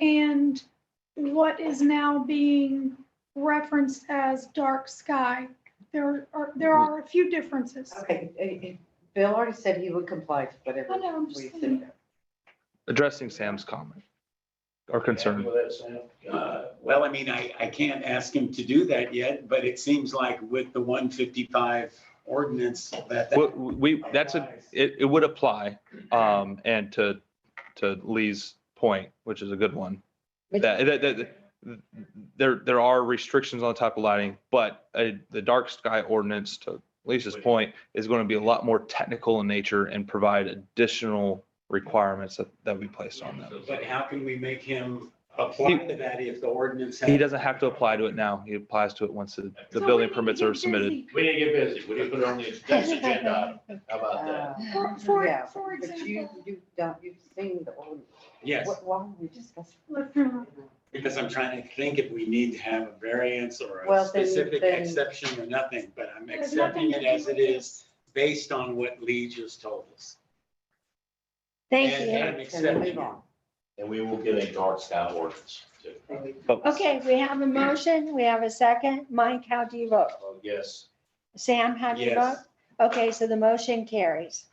and what is now being referenced as dark sky. There are, there are a few differences. Okay, eh, eh, Bill already said he would comply with I whatever know, I'm we just said. saying. addressing Sam's comment or concern. Uh, Well, I mean, I, I can't ask him to do that yet, but it seems like with the one fifty-five ordinance that. that We- We, that's a, applies. it, it would apply. Um, and to, to Lee's point, which is a good one. That, that, that, there, there are restrictions on the type of lighting, but uh, the dark sky ordinance, to Lisa's point, is going to be a lot more technical in nature and provide additional requirements that, that we placed on them. But how can we make him apply to that if the ordinance? He doesn't have to apply to it now. He applies to it once the, the So building we need to permits get are submitted. busy. We didn't get busy. We didn't put it on the next agenda. item. How about that? Uh, For, for, Yeah, for But you, example, you don't, you've seen the old, Yes, what, why are we discussing? let's remember, because I'm trying to think if we need to have a variance or Well, a then- specific then- exception or nothing, but I'm there's nothing accepting to it do as with it is based on what Lee just told us. Thank you. And Can we I'm move accepting it. on? And we will get a dark sky ordinance Uh, too. But- Okay, we have a motion, we have a second. Mike, how do you vote? Oh, yes. Sam, how do you vote? Yes. Okay, so the motion carries.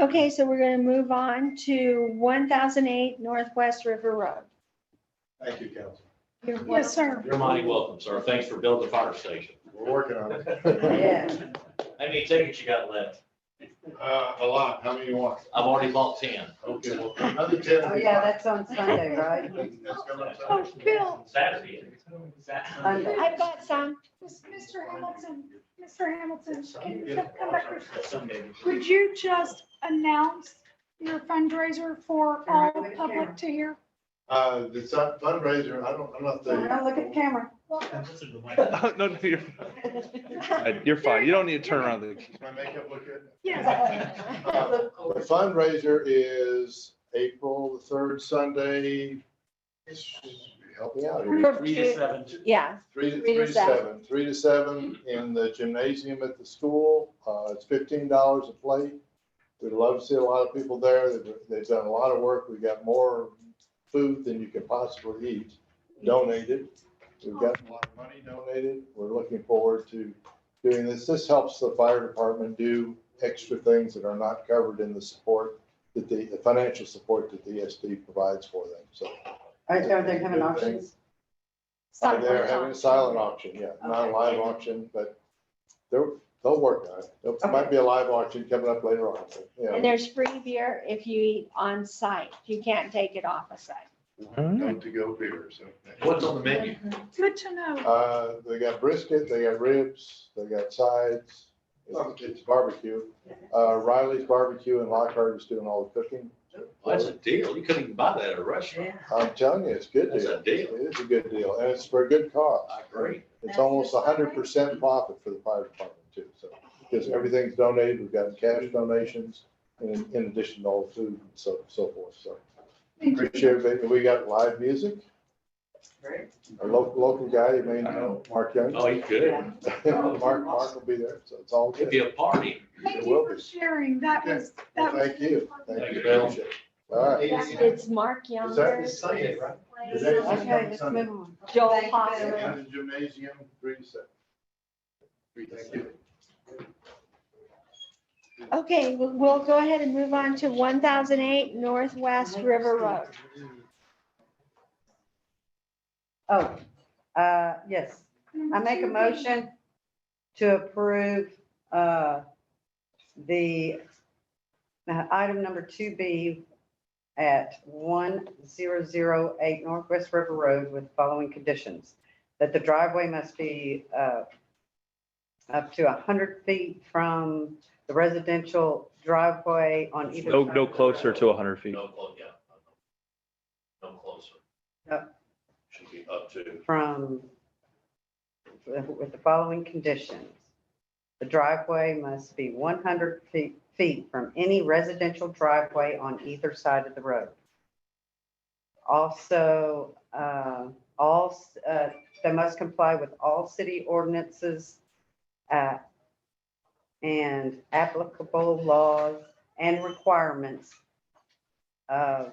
Okay, so we're gonna move on to one thousand eight Northwest River Road. Thank you, Council. You're Yes, welcome. sir. You're mighty welcome, sir. Thanks for building the fire station. We're working on it. Yeah. How many tickets you got left? Uh, a lot. How many you want? I've already bought ten. Okay, well, another ten. Oh, yeah, that's on Sunday, right? That's coming up Oh, Sunday. Bill, Saturday. Sunday. I've got some. Mis- Mr. Hamilton, Mr. Hamilton, can you Yeah. come back here? Sunday. Could you just announce your fundraiser for all the public to hear? Uh, the sun- fundraiser, I don't, I'm not So now look at the the. camera. No, no, you're, you're fine. You don't need to turn around. the- My makeup look good? Yes, Uh, The fundraiser is April the third Sunday. Help me out here. Three to seven. Yeah, Three Three to, three to to seven, three to seven in the gymnasium at the school. Uh, it's fifteen dollars a plate. We'd love to see a lot of people there. They've, they've done a lot of work. We've got more food than you could possibly eat donated. We've got a lot of money donated. We're looking forward to doing this. This helps the fire department do extra things that are not covered in the support that the, the financial support that the ESD provides for them. So Are, are they having auctions? they're having a silent auction, yeah, not a Okay. live auction, but they're, they'll work on it. There might be a live auction coming up later on, but, yeah. and there's free beer if you eat on site. You can't take it off of site. to go beer, so. What's on the menu? good to know. Uh, they got brisket, they got ribs, they got sides. It's- It's barbecue. Uh, Riley's Barbecue and Lockhart is doing all the cooking. That's a deal. You couldn't even buy that at a restaurant. I'm telling you, it's a good That's deal. a deal. It is a good deal, and it's for a good cause. I agree. It's almost hundred percent profit for the fire department too, so, because everything's donated, we've got cash donations, and in- in addition to all the food and so, so forth, so. Appreciate everything, we got live music, Great. our local, local guy, you may know, Mark Young. Oh, you could. Mark, Mark will be there, so it's all It'd good. be a party. Thank you for sharing. That was, that Well, was. Thank you, thank Thank you, you, Bill. appreciate it. All right, It's Mark is that Younger, this Sunday, right? Is that- Okay, let's move on. Joel Thank you, Hoffman. Bill. In the gymnasium, three to seven. Thank you. Okay, we- we'll go ahead and move on to one thousand eight Northwest River Road. Oh, uh, yes, I make a motion to approve, uh, the uh, item number two B at one zero zero eight Northwest River Road with following conditions. That the driveway must be, uh, up to hundred feet from the residential driveway on either. No, side no of the closer road. to hundred feet. No, clo- yeah. No closer. Yep. Should be up to. from, with the following conditions. The driveway must be 100 feet feet from any residential driveway on either side of the road. Also, uh, all, uh, they must comply with all city ordinances uh, and applicable laws and requirements of